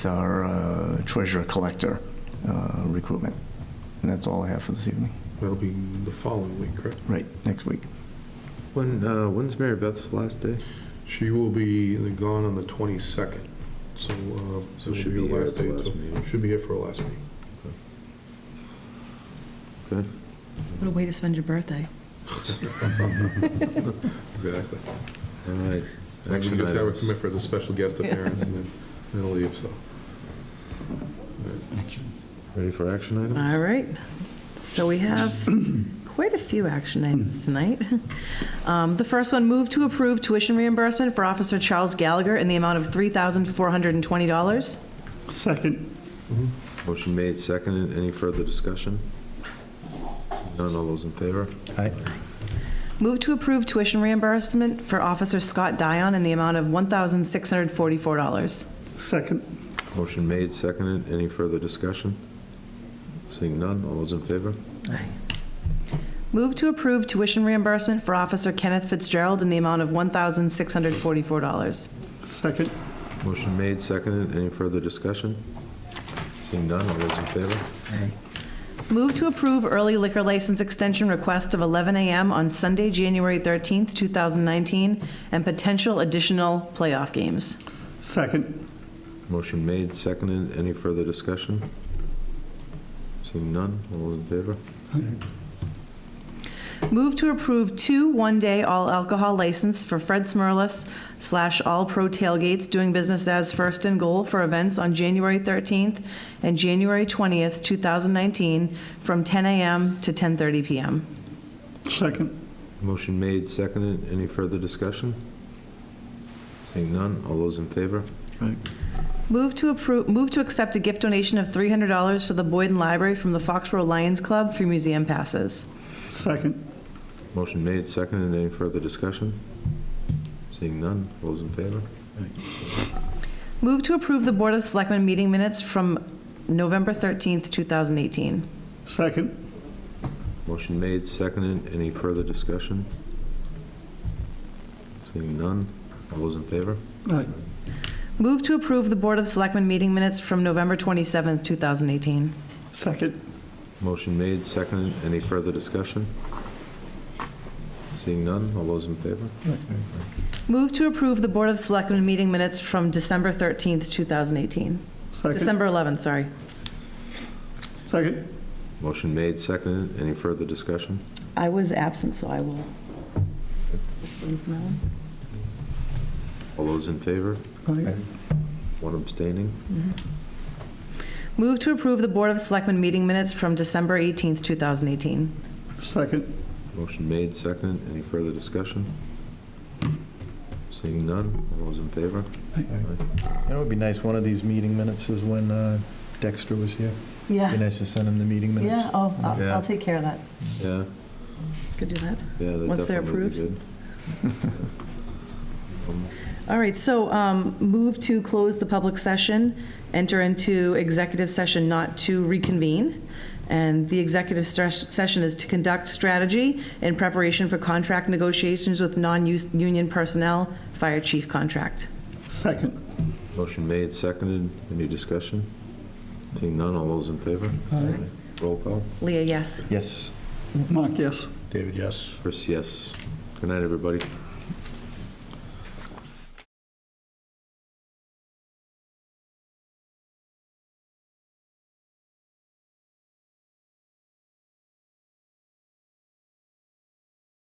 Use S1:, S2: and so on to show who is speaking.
S1: our uh, treasurer collector uh, recruitment. And that's all I have for this evening.
S2: That'll be the following week, correct?
S1: Right, next week.
S3: When, uh, when's Mary Beth's last day?
S2: She will be gone on the 22nd, so uh,
S3: So
S2: it'll
S3: she'll
S2: be her
S3: be here
S2: last
S3: at the
S2: day.
S3: last
S2: so-
S3: meeting.
S2: Should be here for her last meeting.
S3: Good.
S4: What a way to spend your birthday.
S2: Exactly.
S3: All right.
S2: Actually,
S3: Action
S2: just have her
S3: items.
S2: come in for as a special guest appearance and then then I'll leave, so.
S3: Ready for action items?
S4: All right. So we have quite a few action items tonight. Um, The first one, move to approve tuition reimbursement for Officer Charles Gallagher in the amount of $3,420.
S5: Second.
S3: Motion made, seconded. Any further discussion? None, all those in favor?
S4: Move to approve tuition reimbursement for Officer Scott Dion in the amount of $1,644.
S5: Second.
S3: Motion made, seconded. Any further discussion? Seeing none, all those in favor?
S4: Move to approve tuition reimbursement for Officer Kenneth Fitzgerald in the amount of $1,644.
S5: Second.
S3: Motion made, seconded. Any further discussion? Seeing none, all those in favor?
S4: Move to approve early liquor license extension request of 11 a.m. on Sunday, January 13th, 2019, and potential additional playoff games.
S5: Second.
S3: Motion made, seconded. Any further discussion? Seeing none, all those in favor?
S4: Move to approve two one-day all alcohol license for Fred Smurlus slash All Pro Tailgates doing business as First and Goal for events on January 13th and January 20th, 2019, from 10 a.m. to 10:30 p.m.
S5: Second.
S3: Motion made, seconded. Any further discussion? Seeing none, all those in favor?
S4: Move to approve, move to accept a gift donation of $300 to the Boyden Library from the Foxborough Lions Club for museum passes.
S5: Second.
S3: Motion made, seconded. Any further discussion? Seeing none, all those in favor?
S4: Move to approve the Board of Selectmen meeting minutes from November 13th, 2018.
S5: Second.
S3: Motion made, seconded. Any further discussion? Seeing none, all those in favor?
S5: Aye.
S4: Move to approve the Board of Selectmen meeting minutes from November 27th, 2018.
S5: Second.
S3: Motion made, seconded. Any further discussion? Seeing none, all those in favor?
S4: Move to approve the Board of Selectmen meeting minutes from December 13th, 2018.
S5: Second.
S4: December 11th, sorry.
S5: Second.
S3: Motion made, seconded. Any further discussion?
S4: I was absent, so I will.
S3: All those in favor?
S5: Aye.
S3: One abstaining?
S4: Move to approve the Board of Selectmen meeting minutes from December 18th, 2018.
S5: Second.
S3: Motion made, seconded. Any further discussion? Seeing none, all those in favor?
S6: You know, it'd be nice, one of these meeting minutes is when uh, Dexter was here. Be
S4: Yeah,
S6: nice to send him the meeting minutes.
S4: oh,
S3: I'll- Yeah. I'll
S4: take care of that.
S3: Yeah,
S4: Could do that.
S3: yeah, that
S4: Once they're
S3: definitely would be good. Um,
S4: All right, so um, move to close the public session, enter into executive session not to reconvene. And the executive stress- session is to conduct strategy in preparation for contract negotiations with non-union personnel, fire chief contract.
S5: Second.
S3: Motion made, seconded. Any discussion? Seeing none, all those in favor?
S5: Aye.
S3: Roll call.
S4: Leah, yes?
S6: Yes.
S5: Mark, yes.
S6: David, yes.
S3: Chris, yes. Good night, everybody.